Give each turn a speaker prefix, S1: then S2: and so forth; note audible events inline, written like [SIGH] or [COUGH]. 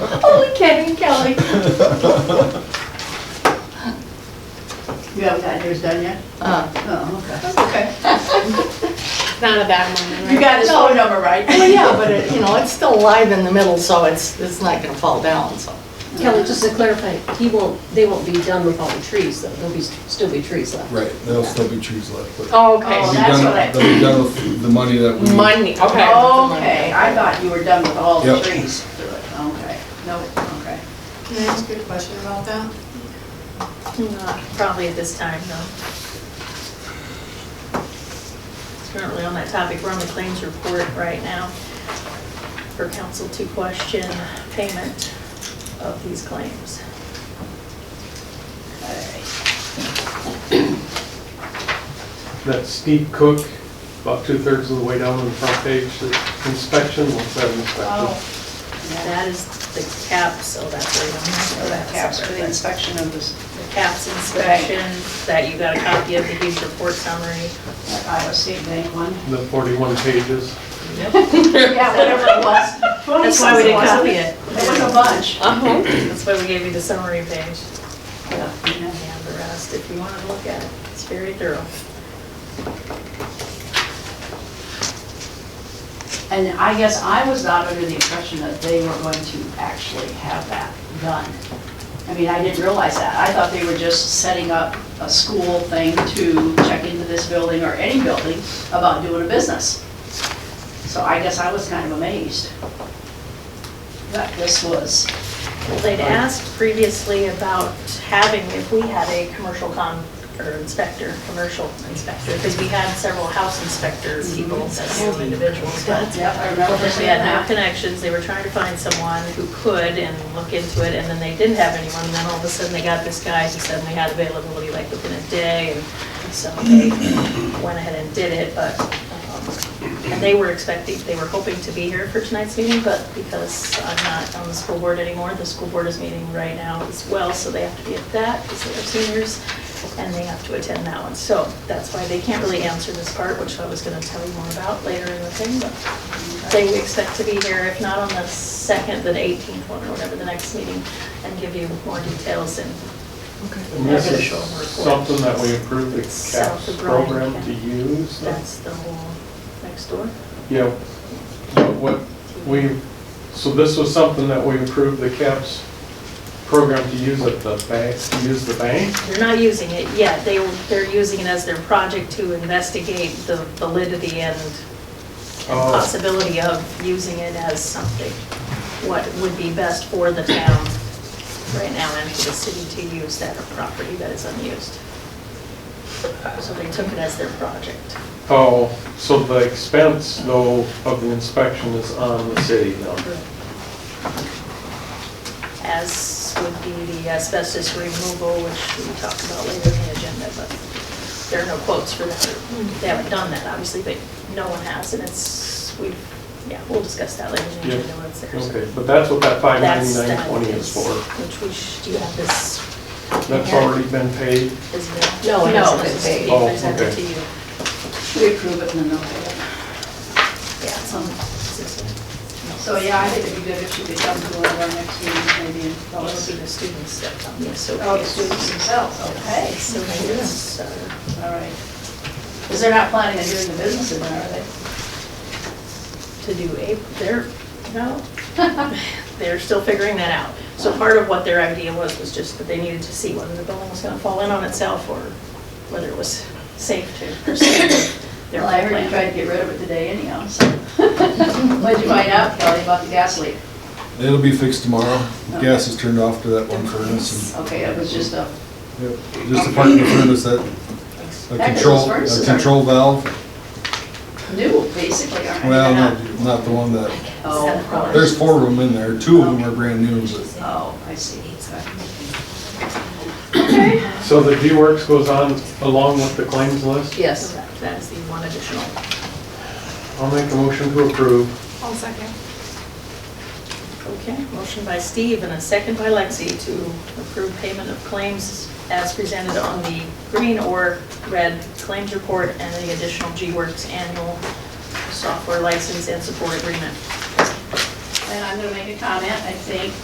S1: and Kelly.
S2: You haven't gotten yours done yet?
S1: Uh,
S2: Oh, okay.
S3: That's okay. It's not a bad moment, right?
S2: You got his
S1: No.
S2: phone number right?
S1: Well, yeah, but it, you know, it's still live in the middle, so it's, it's not gonna fall down, so.
S4: Kelly, just to clarify, he won't, they won't be done with all the trees, though, there'll be, still be trees left.
S5: Right, there'll still be trees left, but.
S3: Oh,
S2: Oh,
S5: We've
S3: okay.
S2: that's
S5: done-
S2: what I-
S5: They'll be done with the money that we.
S3: Money, okay.
S2: Okay, I thought you were done with all the
S5: Yep.
S2: trees. Okay, no, okay.
S6: Can I ask you a question about that?
S3: Not Probably at this time, though. It's not really on that topic. We're on the claims report right now for council to question payment of these claims.
S7: That's Steve Cook, about two-thirds of the way down on the front page, the inspection, what's that inspection?
S2: Oh,
S3: That is the cap, so that's where you don't have to
S2: so
S3: go
S2: Oh, that
S3: that
S2: caps for the
S3: separate.
S2: inspection of this,
S3: The caps inspection, that you got a copy of the huge report summary.
S2: that Iowa State Bank one.
S7: The 41 pages.
S2: Yeah, whatever it was.
S3: That's why we didn't copy it.
S2: It was a bunch.
S3: Uh-huh. That's why we gave you the summary page.
S2: Yeah.
S3: And the rest, if you want to look at it, it's very thorough.
S2: And I guess I was not under the impression that they were going to actually have that done. I mean, I didn't realize that. I thought they were just setting up a school thing to check into this building or any building about doing a business. So I guess I was kind of amazed that this was,
S3: They'd asked previously about having, if we had a commercial con, or inspector, commercial inspector, because we had several house inspector people, as individuals, but
S2: yep, I remember
S3: Because we
S2: seeing
S3: had no
S2: that.
S3: connections, they were trying to find someone who could and look into it, and then they didn't have anyone, and then all of a sudden they got this guy who suddenly had availability like within a day, and so they went ahead and did it, but, um, and they were expecting, they were hoping to be here for tonight's meeting, but because I'm not on the school board anymore, the school board is meeting right now as well, so they have to be at that, because they're seniors, and they have to attend that one, so that's why they can't really answer this part, which I was gonna tell you more about later in the thing, but they would expect to be here, if not on the second, the 18th one, or whatever the next meeting, and give you more details and
S7: And this is
S3: Official report.
S7: something that we approved the
S3: It's South
S7: CAPS
S3: of Bryan
S7: program to
S3: County.
S7: use.
S3: that's the whole next door.
S7: Yeah, but what we, so this was something that we approved the CAPS program to use at the bank, to use the bank?
S3: They're not using it yet, they, they're using it as their project to investigate the validity and and
S7: Oh.
S3: possibility of using it as something, what would be best for the town right now and for the city to use that property that is unused. So they took it as their project.
S7: Oh, so the expense though of the inspection is on the city now?
S3: as would be the asbestos removal, which we talked about later in the agenda, but there are no quotes for that. They haven't done that, obviously, but no one has, and it's, we, yeah, we'll discuss that later in the
S7: Yeah.
S3: agenda when it's there. so
S7: Okay, but that's what that
S3: that's done,
S7: 59920 is
S3: it's-
S7: for.
S3: Which we, sh- do you have this,
S7: That's already been paid?
S3: is
S4: No, it hasn't been
S3: it's
S4: paid.
S7: Oh,
S3: presented
S7: okay.
S3: to you.
S2: We approve it and then they'll.
S3: Yeah, it's on system.
S2: So, yeah, I think it'd be good if you could come to one of our next meetings maybe and tell
S3: It'll be
S2: us.
S3: the students that come, yes, so.
S2: Oh, the students themselves, okay.
S3: So it's, uh,
S2: All right. Because they're not planning on doing the business in there, are they?
S3: to do a, they're, no, [LAUGHS] they're still figuring that out. So part of what their idea was, was just that they needed to see whether the building was gonna fall in on itself or whether it was safe to proceed. with their
S2: Well, I heard you
S3: plan.
S2: tried to get rid of it today anyhow, so. [LAUGHS] What'd you find out, Kelly, about the gas leak?
S5: It'll be fixed tomorrow. Gas is turned off to that one furnace
S2: Okay, it was just a,
S5: and, yep, just a part of the furnace that, a
S2: That
S5: control,
S2: furnace
S5: a
S2: is-
S5: control valve.
S2: new, basically, aren't they?
S5: Well, no, not the one that,
S2: Oh, of course.
S5: there's four of them in there. Two of them are brand new, but
S2: Oh, I see. Okay.
S7: So the D-Works goes on along with the claims list?
S3: So
S4: Yes.
S3: that- That is the one additional.
S7: I'll make a motion to approve.
S6: I'll second.
S3: Okay, motion by Steve and a second by Lexi to approve payment of claims as presented on the green or red claims report and the additional G-Works annual software license and support agreement.
S2: And I'm gonna make a comment, I think